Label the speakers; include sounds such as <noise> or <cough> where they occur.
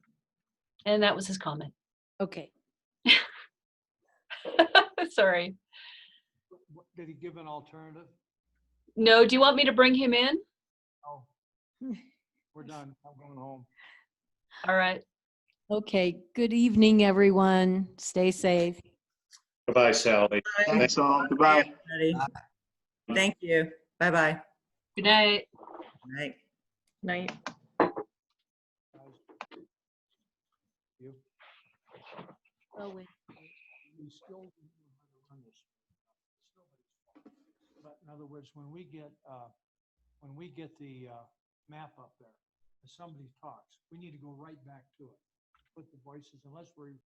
Speaker 1: And that was his comment. <laughs>
Speaker 2: Okay.
Speaker 1: Sorry.
Speaker 3: Wh- wh- Did he give an alternative?
Speaker 1: No, do you want me to bring him in?
Speaker 3: No. <laughs> We're done. I'm going home.
Speaker 1: All right.
Speaker 2: Okay. Good evening, everyone. Stay safe.
Speaker 4: Goodbye, Sally.
Speaker 5: Thanks all. Goodbye. Thank you. Bye-bye.
Speaker 1: Good night.
Speaker 5: Night.
Speaker 6: Night.
Speaker 3: guys. You,
Speaker 1: Oh,
Speaker 3: we still. run this. It's nobody's fault. But in other words, when we get, uh, when we get the, uh, map up there, if somebody talks, we need to go right back to it. Put the voices, unless we're